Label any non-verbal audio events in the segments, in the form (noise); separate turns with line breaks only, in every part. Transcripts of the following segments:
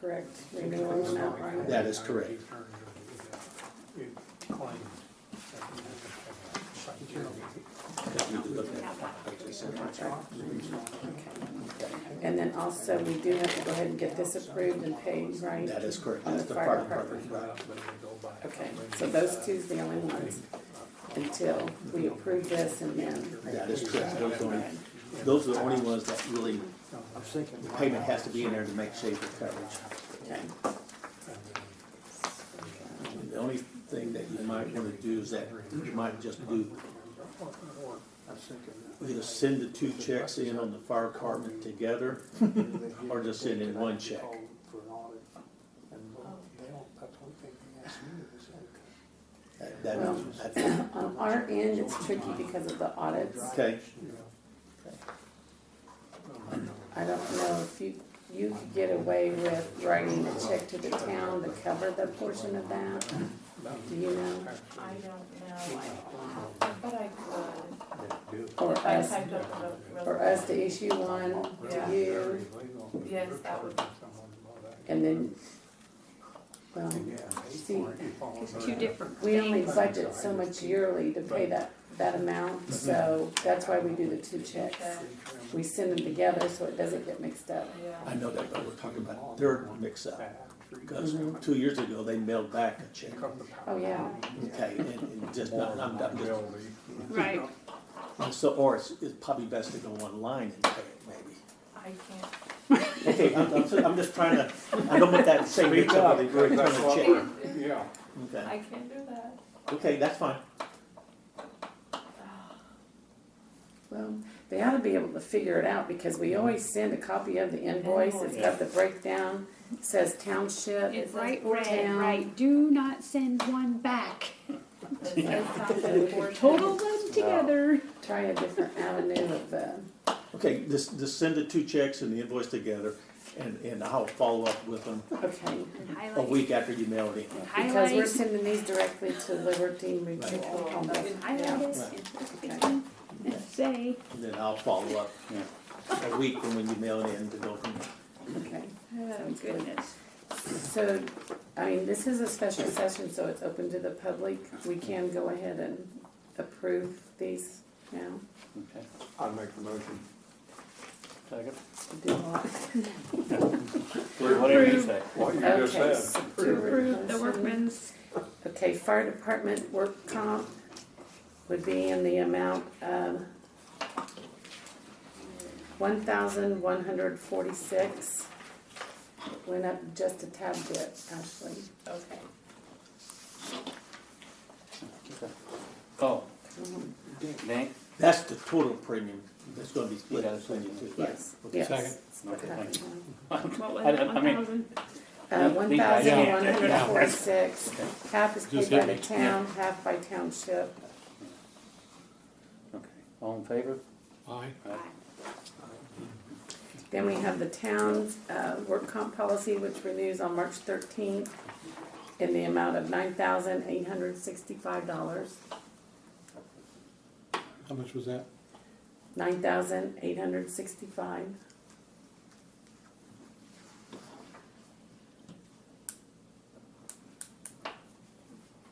correct renewal on that one.
That is correct.
And then also, we do have to go ahead and get this approved and paid, right?
That is correct,
On
that's the fire department, right.
Okay, so those two's the only ones until we approve this and then.
That is correct, those are, the only- those are the only ones that really,
I'm thinking.
the payment has to be in there to make safe coverage.
Okay.
The only thing that you might wanna do is that, you might just do,
I'm thinking.
either send the two checks in on the fire department together, Or just send in one check. That- that- that-
On our end, it's tricky because of the audits.
okay,
I don't know if you, you could get away with writing a check to the town to cover the portion of that. Do you know?
I don't know, I, but I could,
Or
if I
us,
typed up the. re-
or us to issue one
Yeah.
to you
Yes, that would-
and then, well, see,
Two different
we only
things.
budget so much yearly to pay that, that amount, so that's why we do the two checks. We send them together so it doesn't get mixed up.
I know that, but we're talking about their mix-up. Because two years ago, they mailed back a check,
Mhm. Oh, yeah.
okay, and, and just not, I'm not, just
Right,
So, or it's, it's probably best to go online and pay it, maybe.
I can't,
Okay, I'm, I'm, I'm just trying to, I don't want that same mix up.
Speak up.
Okay,
Yeah.
I can't do that.
okay, that's fine.
Well, they ought to be able to figure it out because we always send a copy of the invoice. It's got the breakdown, says (laughs) township.
it's right, red,
Town.
right, do not send one back.
It
(laughs)
says something for-
Total them together.
Try a different avenue of, uh,
Okay, just, just send the two checks and the invoice together, and, and I'll follow up with them
okay.
a
Highlight,
week after you mail it in.
Because we're
highlight,
sending these directly to Liberty Mutual. Almost.
highlight it and- and- and say,
And then I'll follow up a week from when you mail it in to go from,
Okay.
oh
good.
goodness.
So, I mean, this is a special session, so it's open to the public. We can go ahead and approve these now.
Okay,
I'd make the motion.
second.
Do what?
Whatever you say.
What you just
Okay.
said.
so
To approve the
motion.
workman's,
Okay, fire department work comp would be in the amount of one thousand one hundred forty-six. Went up just a tad bit, Ashley.
Okay.
Okay. Oh, Nick?
that's the total premium that's gonna be split
Yeah.
between you two. right?
Yes,
Okay.
yes.
Okay, thank
what was
I-
it,
I
one
mean-
thousand?
Uh, one thousand one hundred
Yeah.
forty-six, half is paid
Just
by
hit
the
me.
town, half by township.
Okay, all in favor?
Then we have the town's uh, work comp policy, which renews on March thirteenth in the amount of nine thousand eight hundred sixty-five dollars,
How much was that?
nine thousand eight hundred sixty-five.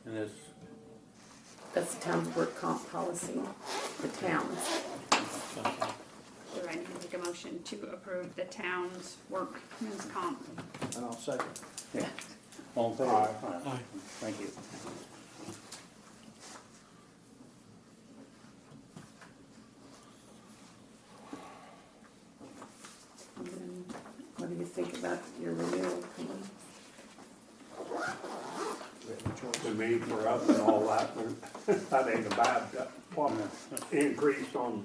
And this,
That's the town's work comp policy, the town's.
Do I need to make a motion to approve the town's workman's comp?
And I'll second.
all in favor?
Aye.
Thank you.
And then Um, What do you think about your renewal? Colin?
To me, for us and all that, but that ain't a bad, uh, what, increase on,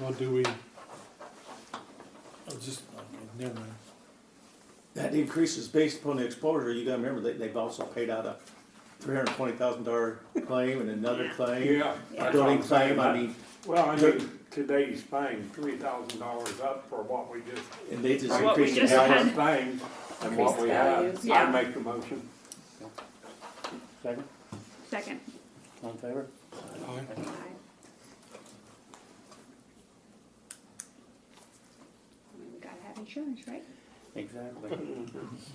Well, do we? Oh, just, okay, never mind.
That increase is based upon the exposure, you gotta remember, they, they've also paid out a three hundred and twenty thousand dollar claim and another claim.
yeah.
A
that's what
building
I'm saying.
claim, I mean,
Well, I mean, today's thing, three thousand dollars up for what we just,
and they just
What we
increased the
just
value.
had.
other things and what we have.
Increased values,
yeah.
I make the motion.
Second,
Second.
all in favor?
Aye.
Aye. We gotta have insurance, right?
Exactly.